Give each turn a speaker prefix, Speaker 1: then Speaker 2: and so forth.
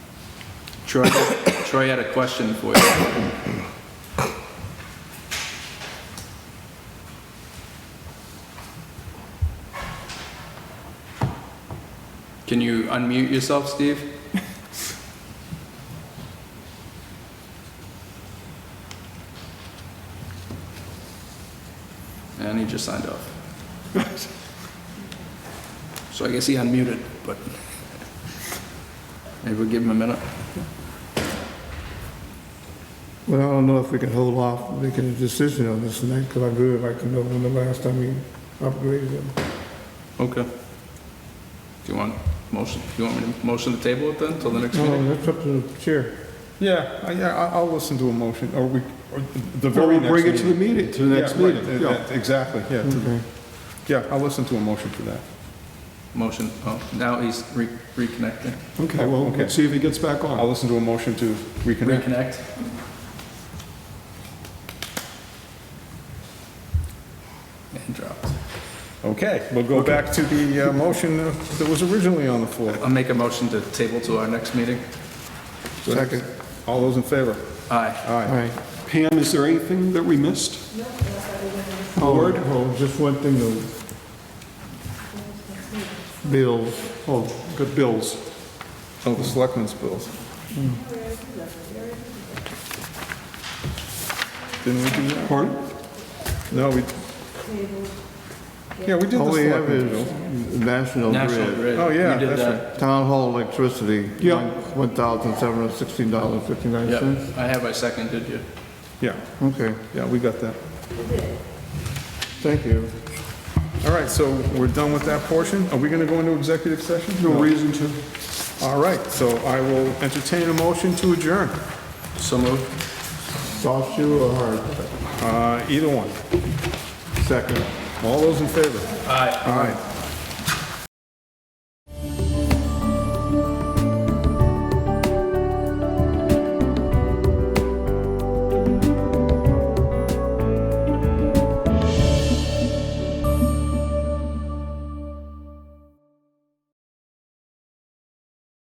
Speaker 1: Troy, Troy had a question for you. Can you unmute yourself, Steve? And he just signed off. So I guess he unmuted, but maybe we'll give him a minute.
Speaker 2: Well, I don't know if we can hold off making a decision on this tonight, because I really like to know when the last time we upgraded them.
Speaker 1: Okay. Do you want motion, do you want me to motion the table it then till the next meeting?
Speaker 2: No, that's up to the chair.
Speaker 3: Yeah, I- yeah, I- I'll listen to a motion, or we, or the
Speaker 4: Or
Speaker 3: very
Speaker 4: we'll
Speaker 3: next meeting.
Speaker 4: bring it to the meeting, to the next
Speaker 3: Yeah, right,
Speaker 4: meeting.
Speaker 3: uh,
Speaker 4: Yeah.
Speaker 3: uh, Exactly, yeah, to-
Speaker 2: Okay.
Speaker 3: yeah, I'll listen to a motion for that.
Speaker 1: Motion, oh, now he's re- reconnecting.
Speaker 4: Okay, well,
Speaker 3: Okay.
Speaker 4: let's see if he gets back
Speaker 3: I'll
Speaker 4: on.
Speaker 3: listen to a motion to reconnect.
Speaker 1: Reconnect. And dropped.
Speaker 3: Okay, we'll go back to the uh, motion that was originally on the floor.
Speaker 1: I'll make a motion to table to our next meeting.
Speaker 2: Second.
Speaker 3: All those in favor?
Speaker 1: Aye.
Speaker 3: All
Speaker 2: Aye.
Speaker 3: right.
Speaker 4: Pam, is there anything that we missed?
Speaker 2: Board? Oh, just one thing though. Bills.
Speaker 4: Oh, good bills.
Speaker 3: Oh, the selectmen's bills. Didn't we do that?
Speaker 4: Pardon?
Speaker 3: No, we... Yeah, we did the
Speaker 2: All we have
Speaker 3: selectmen's bills.
Speaker 2: is National
Speaker 1: National
Speaker 2: Grid.
Speaker 1: Grid.
Speaker 3: Oh, yeah,
Speaker 1: You did
Speaker 3: that's
Speaker 1: that.
Speaker 2: Town hall electricity.
Speaker 4: Yeah.
Speaker 2: One thousand seven hundred sixteen dollars fifty-nine
Speaker 1: Yep,
Speaker 2: cents.
Speaker 1: I have, I seconded you.
Speaker 3: Yeah,
Speaker 2: Okay,
Speaker 3: yeah, we got that.
Speaker 2: thank you.
Speaker 3: All right, so we're done with that portion. Are we going to go into executive session?
Speaker 4: No reason to.
Speaker 3: All right, so I will entertain a motion to adjourn,
Speaker 1: So moved.
Speaker 2: Soft shoe or hard?
Speaker 3: Uh, either one.
Speaker 2: Second.
Speaker 3: All those in favor?
Speaker 1: Aye.
Speaker 3: All right.